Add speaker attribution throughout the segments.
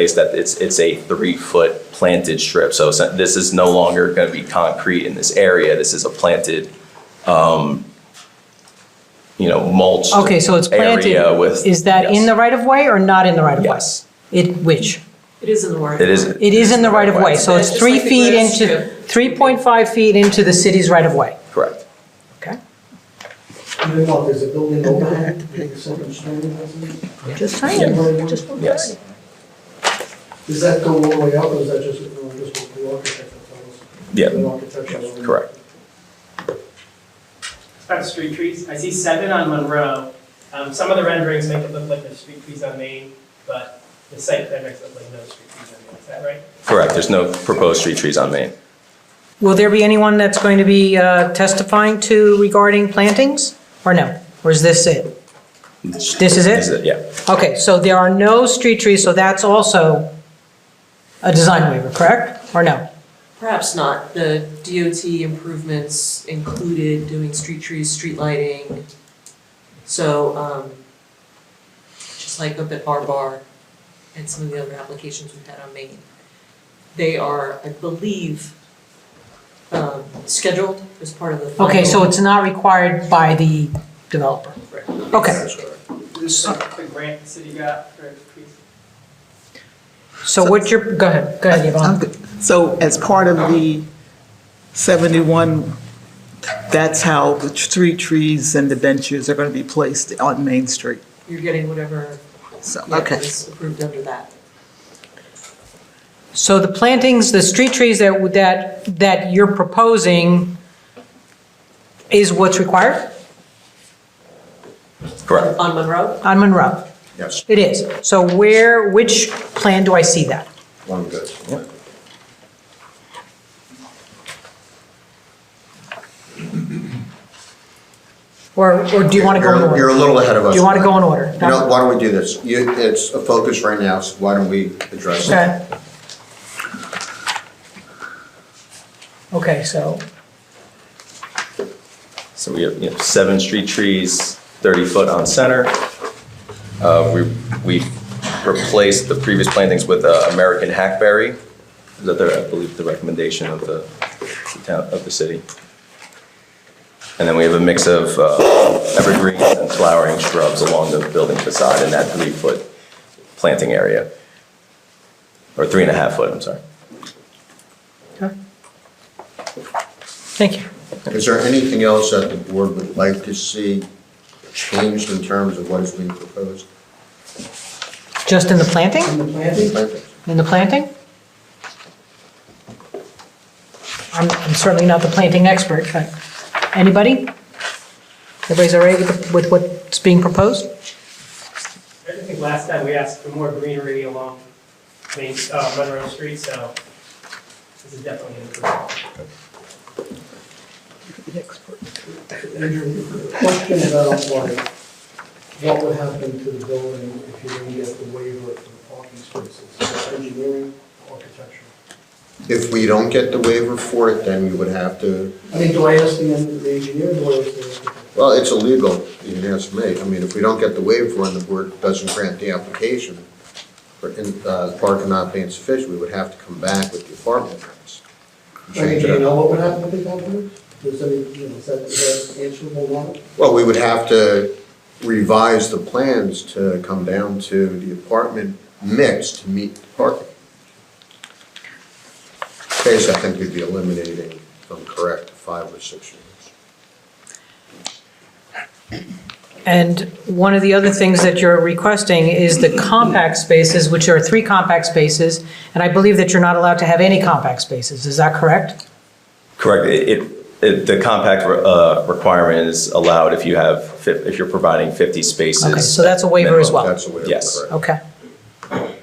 Speaker 1: place that it's, it's a three-foot planted strip. So it's- this is no longer going to be concrete in this area. This is a planted, um, you know, mulched
Speaker 2: Okay, so it's planted.
Speaker 1: Area with.
Speaker 2: Is that in the right of way or not in the right of way?
Speaker 1: Yes.
Speaker 2: It, which?
Speaker 3: It is in the right.
Speaker 1: It is.
Speaker 2: It is in the right of way, so
Speaker 3: It's
Speaker 2: it's
Speaker 3: just
Speaker 2: three
Speaker 3: like the
Speaker 2: feet
Speaker 3: grass
Speaker 2: into,
Speaker 3: strip.
Speaker 2: 3.5 feet into the city's right of way.
Speaker 1: Correct.
Speaker 2: Okay.
Speaker 4: You know, there's a building overhang, the second story, isn't it?
Speaker 5: Just saying, just.
Speaker 1: Yes.
Speaker 4: does that go all the way up, or is that just, or just what the architect tells us?
Speaker 1: Yeah.
Speaker 4: The architectural-
Speaker 1: Correct.
Speaker 6: Kind of street trees. I see seven on Monroe. Um, some of the renderings make it look like there's street trees on Main, but the site plan makes it look like no street trees on Main. Is that right?
Speaker 1: Correct. There's no proposed street trees on Main.
Speaker 2: Will there be anyone that's going to be uh, testifying to regarding plantings, or no? Or is this it? This
Speaker 1: Is
Speaker 2: is it?
Speaker 1: it? Yeah.
Speaker 2: Okay, so there are no street trees, so that's also a design waiver, correct? Or no?
Speaker 3: Perhaps not. The DOT improvements included doing street trees, street lighting. So, um, just like up at our bar and some of the other applications we've had on Maine. They are, I believe, um, scheduled as part of the final.
Speaker 2: Okay, so it's not required by the developer. Okay,
Speaker 6: This is the grant the city got for trees.
Speaker 2: so what you're, go ahead, go ahead,
Speaker 5: I'm
Speaker 2: Yvonne.
Speaker 5: good. So as part of the 71, that's how the three trees and the benches are going to be placed on Main Street.
Speaker 3: You're getting whatever,
Speaker 5: So,
Speaker 3: yeah,
Speaker 5: okay.
Speaker 3: is approved under that.
Speaker 2: So the plantings, the street trees that, that, that you're proposing is what's required
Speaker 1: Correct.
Speaker 3: On Monroe,
Speaker 2: on Monroe?
Speaker 7: Yes,
Speaker 2: It is. So where, which plan do I see that?
Speaker 7: one good.
Speaker 2: Or, or do you want to go in
Speaker 7: You're- You're a
Speaker 2: order?
Speaker 7: little ahead of us.
Speaker 2: Do you want to go in order?
Speaker 7: You know, why don't we do this? You, it's a focus right now, so why don't we address it?
Speaker 2: Okay. Okay, so,
Speaker 1: So we have, you know, seven street trees, 30 foot on center. Uh, We we replaced the previous plantings with uh, American hackberry. Is that the, I believe, the recommendation of the town, of the city? And then we have a mix of uh, evergreens and flowering shrubs along the building facade in that three-foot planting area. Or three and a half foot, I'm sorry.
Speaker 2: thank you.
Speaker 7: Is there anything else that the board would like to see changed in terms of what is being proposed?
Speaker 2: Just in the planting?
Speaker 4: And the planting,
Speaker 2: In the planting? I'm I'm certainly not the planting expert, but anybody? Everybody's all right with, the- with what's being proposed?
Speaker 6: I just think last time we asked for more greenery along Main, uh, Monroe Street, so this is definitely an improvement.
Speaker 4: Andrew, question about like, what would happen to the building if you didn't get the waiver for the parking spaces? Is it Engineering, architecture?
Speaker 7: If we don't get the waiver for it, then you would have to,
Speaker 4: I mean, do I ask the en- the engineer, do I ask the architect?
Speaker 7: well, it's illegal, you can ask me. I mean, if we don't get the waiver and the board doesn't grant the application, for in- uh, parking not being sufficient, we would have to come back with the apartment permits.
Speaker 4: I mean,
Speaker 7: Change
Speaker 4: do
Speaker 7: it
Speaker 4: you
Speaker 7: up.
Speaker 4: know what would happen if they got there? Does any, you know, is that, is that answerable now?
Speaker 7: Well, we would have to revise the plans to come down to the apartment mix to meet the parking. Space, I think we'd be eliminating, if I'm correct, five or six units.
Speaker 2: And one of the other things that you're requesting is the compact spaces, which are three compact spaces, and I believe that you're not allowed to have any compact spaces, is that correct?
Speaker 1: Correct. It- It, it, the compact uh, requirement is allowed if you have, fif- if you're providing 50 spaces.
Speaker 2: Okay, so that's a waiver as well.
Speaker 7: That's the way
Speaker 1: Yes.
Speaker 7: it's correct.
Speaker 2: Okay.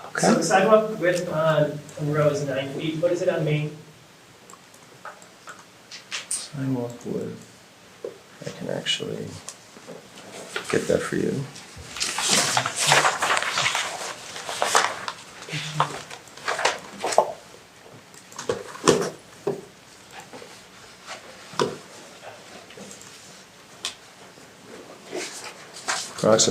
Speaker 6: So
Speaker 2: Okay,
Speaker 6: the sidewalk width on Monroe is nine feet. What is it on Main?
Speaker 1: Sidewalk would, I can actually get that for you.